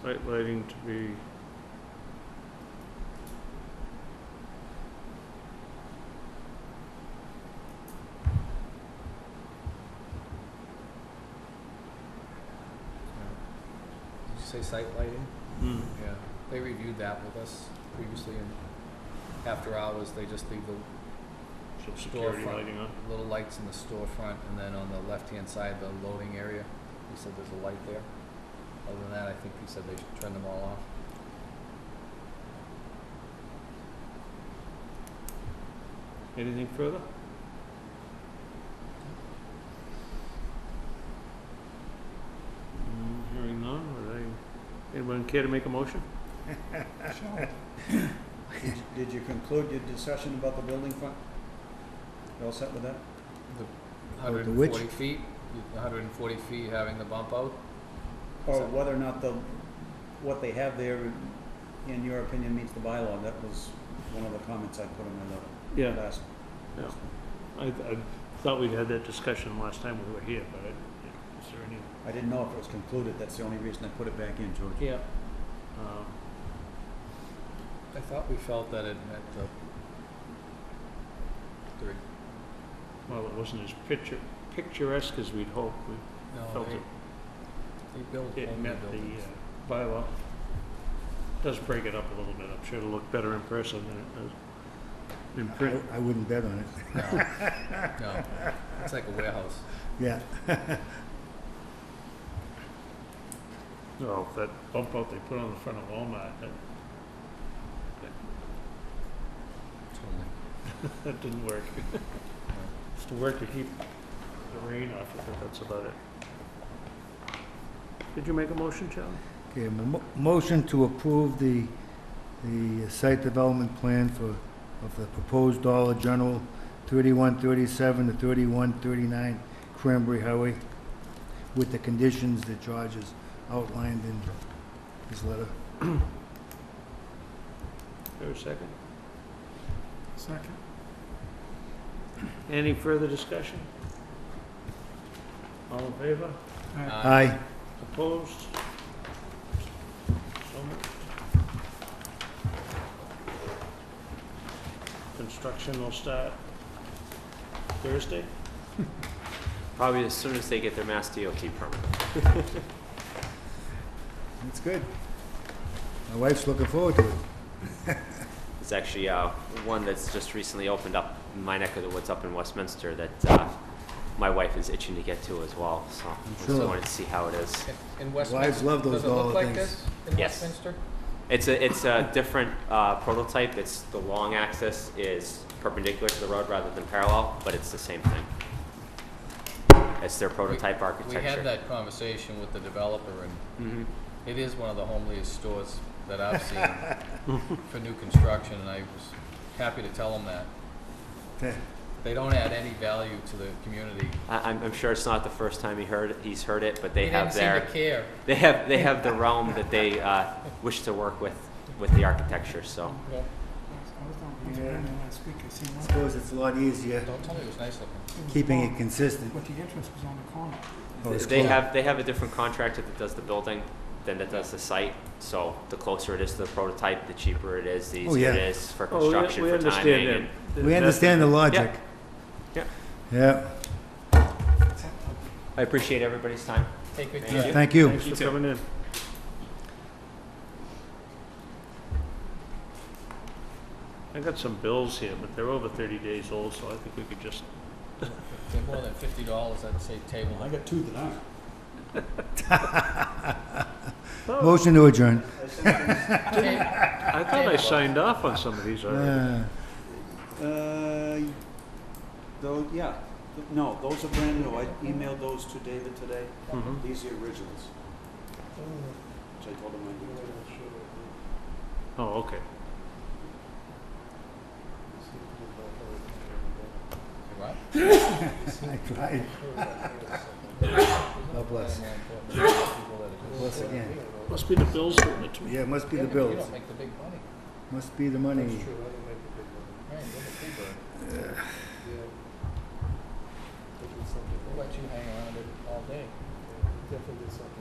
site lighting to be. Did you say site lighting? Hmm. Yeah, they reviewed that with us previously, and after hours, they just leave the So security Storefront. lighting on. little lights in the storefront, and then on the left-hand side, the loading area, he said there's a light there. Other than that, I think he said they should turn them all off. Anything further? Mm, Hearing none, would I, anyone care to make a motion? Did did you conclude your discussion about the building fund? You all set with that? Hundred and which? forty feet, hundred and forty feet having the bump out, Or So- whether or not the, what they have there, in your opinion, meets the bylaw? That was one of the comments I put in my letter Yeah, last. Yeah. I, I thought we had that discussion last time we were here, but I, yeah, is there any? I didn't know if it was concluded, that's the only reason I put it back in, George. Yeah. Um, I thought we felt that it met the the re- well, it wasn't as picture, picturesque as we'd hoped. We no, felt they, it, they built it only met the buildings. uh, bylaw. Does break it up a little bit. I'm sure it'll look better in person than it does in I, print. I wouldn't bet on it. uh, No, no, it's like a warehouse. Yeah, Oh, that bump out they put on the front of Walmart, that, Totally. that didn't work. It's to work to keep the rain off of it, that's about it. Did you make a motion, Charlie? okay, mo- motion to approve the, the site development plan for, of the proposed Dollar General, thirty-one thirty-seven to thirty-one thirty-nine Cranberry Highway, with the conditions that George has outlined in his letter. There a second? Second. Any further discussion? All in favor? Uh, Aye. Opposed? So moved. Construction will start Thursday? Probably as soon as they get their Mass DOT permit. That's good. My wife's looking forward to it. It's actually uh, one that's just recently opened up in my neck of the woods up in Westminster that uh, my wife is itching to get to as well. So I just sure. wanted to see how it is. in- In Wives Westminster, love those does it look dollar like things. this in Yes. Westminster? It's a it's a different uh, prototype. It's the long axis is perpendicular to the road rather than parallel, but it's the same thing. It's their prototype We architecture. had that conversation with the developer, and Mhm. it is one of the homeliest stores that I've seen for new construction, and I was happy to tell them that. Okay. They don't add any value to the community. I, I'm, I'm sure it's not the first time he heard it, he's heard it, but they He have their didn't seem to care. They have they have the realm that they uh, wish to work with with the architecture. So Well, Yeah. I suppose it's a lot easier Don't tell me it was nice looking. keeping it consistent. But the entrance was on the corner. Oh, it's they close. have they have a different contractor that does the building than that does the site. So the closer it is to the prototype, the cheaper it is, the easier Oh, it yeah. is for Oh, we- construction, we for understand timing. that- and- that- We understand the logic. Yeah. Yeah, I appreciate everybody's time. Take good Thank care. thank you. Thanks for coming in. I got some bills here, but they're over thirty days old, so I think we could just, They're more than fifty dollars, I'd say table. I got two that aren't. oh, Motion to adjourn. Ta- I thought I signed off on some of these already. Uh, Uh, though, yeah, Th- no, those are brand new, I emailed those to David today, Mhm. these are originals, which I told him I Oh, okay. What? I tried. God bless. God Bless again. Must be the bills doing it to me. Yeah, it must be Yeah, the but You bills. don't make the big money. Must be the money. Right, you're the free bird. We'll let you hang around it all day.